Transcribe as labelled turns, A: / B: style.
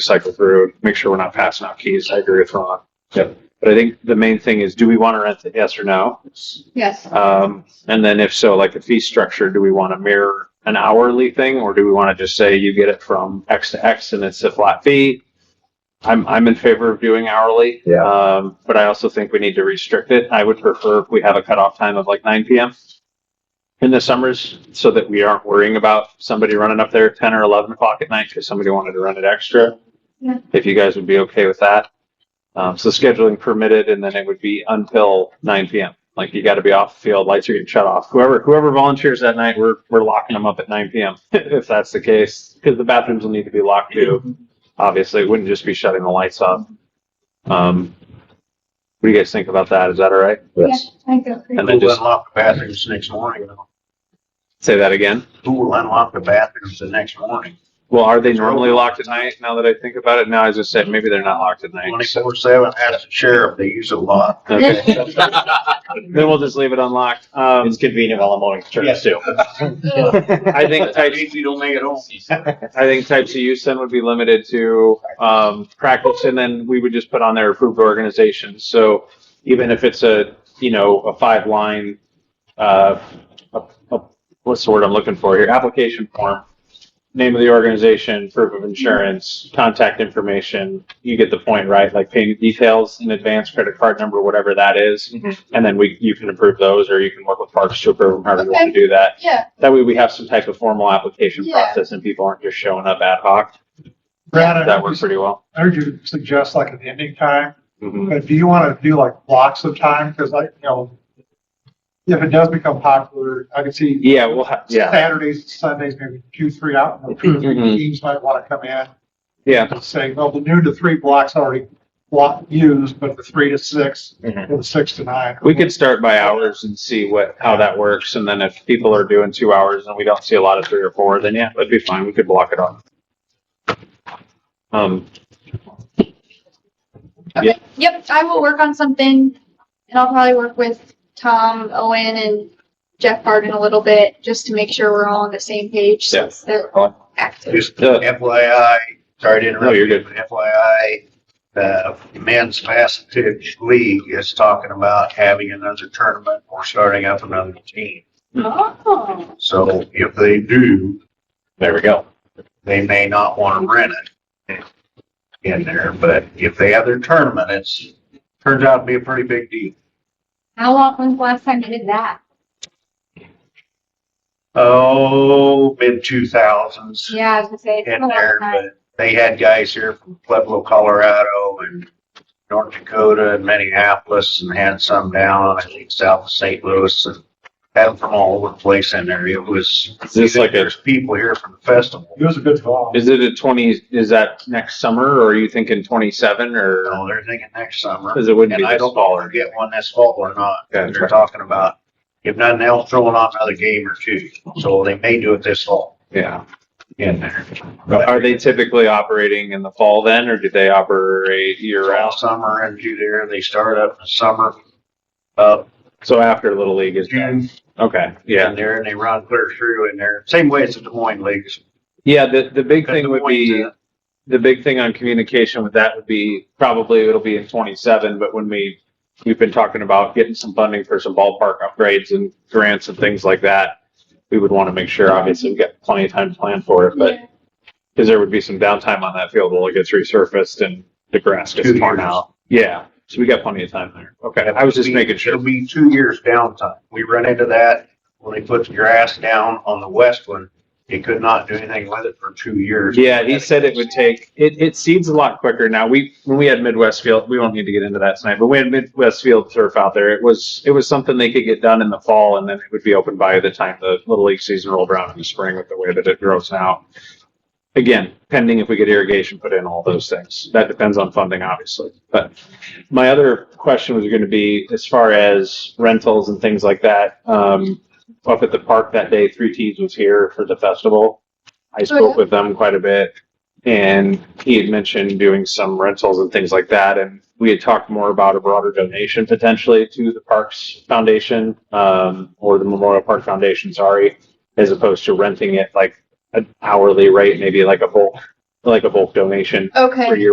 A: cycle through, make sure we're not passing out keys. I agree with Ron. Yep. But I think the main thing is, do we want to rent it? Yes or no?
B: Yes.
A: Um, and then if so, like the fee structure, do we want to mirror an hourly thing or do we want to just say you get it from X to X and it's a flat fee? I'm, I'm in favor of doing hourly.
C: Yeah.
A: Um, but I also think we need to restrict it. I would prefer if we have a cutoff time of like nine PM in the summers so that we aren't worrying about somebody running up there at ten or eleven o'clock at night because somebody wanted to run it extra.
B: Yeah.
A: If you guys would be okay with that. Um, so scheduling permitted and then it would be until nine PM. Like you gotta be off the field, lights are getting shut off. Whoever, whoever volunteers that night, we're, we're locking them up at nine PM if that's the case. Cause the bathrooms will need to be locked too. Obviously, it wouldn't just be shutting the lights off. Um, what do you guys think about that? Is that all right?
C: Yes.
B: Yeah, I go.
A: And
D: Who
A: then just
D: unlocked the bathrooms the next morning? though?
A: say that again.
D: Who will unlock the bathrooms the next morning?
A: Well, are they normally locked at night? Now that I think about it, now I just said maybe they're not locked at night.
D: Twenty-four seven, ask the sheriff, they use it a lot.
A: Okay. Then we'll just leave it unlocked. Um,
E: It's convenient while I'm on church
D: Yes.
E: too.
A: I think type,
D: you don't make it home.
A: I think types of use then would be limited to, um, practice and then we would just put on there approved organizations. So even if it's a, you know, a five line, uh, a- a- what's the word I'm looking for here? Application form, name of the organization, proof of insurance, contact information. You get the point, right? Like payment details in advance, credit card number, whatever that is.
D: Mm-hmm.
A: And then we, you can approve those or you can work with parks to approve them, however you want to do that.
B: Yeah,
A: That way we have some type of formal application
B: Yeah.
A: process and people aren't just showing up ad hoc.
F: Brad, I
A: That
F: heard
A: works
F: you-
A: pretty well.
F: I heard you suggest like an ending time,
A: Mhm.
F: but do you want to do like blocks of time? Because like, you know, if it does become popular, I could see
A: Yeah, we'll have, yeah,
F: Saturdays, Sundays, maybe two, three out. and
A: Mhm.
F: Teams might want to come in
A: yeah.
F: and say, well, the noon to three block's already block used, but the three to six
E: Mhm.
F: or the six to nine.
A: Mm-hmm. We could start by hours and see what, how that works. And then if people are doing two hours and we don't see a lot of three or four, then yeah, that'd be fine. We could block it off. Um,
B: yep, I will work on something and I'll probably work with Tom, Owen and Jeff Harden a little bit, just to make sure we're all on the same page since they're active.
D: Just FYI, sorry to interrupt.
A: No, you're
D: you,
A: good.
D: but FYI, uh, men's varsity league is talking about having another tournament or starting up another team.
B: Oh.
D: So if they do,
E: There we go.
D: they may not want to rent it in there, but if they have their tournament, it's, turns out to be a pretty big deal.
B: How long, when's the last time you did that?
D: Oh, mid two thousands
B: Yeah, I was gonna say, it's been
D: in
B: a long
D: there,
B: time.
D: but they had guys here from Pueblo, Colorado and North Dakota and Minneapolis and had some down, I think, south of St. Louis and had them from all over the place in there. It was,
A: is this like a,
D: there's people here from the festival.
F: It was a good call.
A: is it a twenty, is that next summer or are you thinking twenty-seven or?
D: So they're thinking next summer.
A: Cause it wouldn't be
D: And I
A: this
D: don't
A: fall
D: know
A: or.
D: if they get one this fall or not.
A: Okay.
D: They're talking about, if nothing else, throwing on another game or two. So they may do it this fall
A: Yeah.
D: in there.
A: Are they typically operating in the fall then or do they operate year
D: All
A: round?
D: summer into there. They start up in the summer, uh,
A: So after Little League is done.
D: June
A: Okay, yeah.
D: in there and they run clear through in there. Same way as the Des Moines leagues.
A: Yeah, the, the big
D: The Des
A: thing would
D: Moines,
A: be,
D: uh,
A: the big thing on communication with that would be, probably it'll be in twenty-seven, but when we, we've been talking about getting some funding for some ballpark upgrades and grants and things like that. We would want to make sure, obviously, we've got plenty of time to plan for it, but,
B: Yeah.
A: because there would be some downtime on that field while it gets resurfaced and the grass gets
D: Two
A: torn
D: years.
A: out. Yeah, so we got plenty of time there. Okay, I was just
D: It'll be-
A: making sure.
D: It'll be two years downtime. We run into that when they put the grass down on the west one. They could not do anything with it for two years.
A: Yeah, he said it would take, it, it seeds a lot quicker. Now, we, when we had Midwest Field, we won't need to get into that tonight, but we had Midwest Field turf out there. It was, it was something they could get done in the fall and then it would be open by the time the Little League season rolled around in the spring with the way that it grows now. Again, pending if we get irrigation put in, all those things. That depends on funding, obviously. But my other question was going to be as far as rentals and things like that. Um, up at the park that day, Three Tees was here for the festival. I spoke with them quite a bit and he had mentioned doing some rentals and things like that. And we had talked more about a broader donation potentially to the Parks Foundation, um, or the Memorial Park Foundation, sorry, as opposed to renting it like an hourly rate, maybe like a bulk like a bulk donation
B: Okay.
A: for your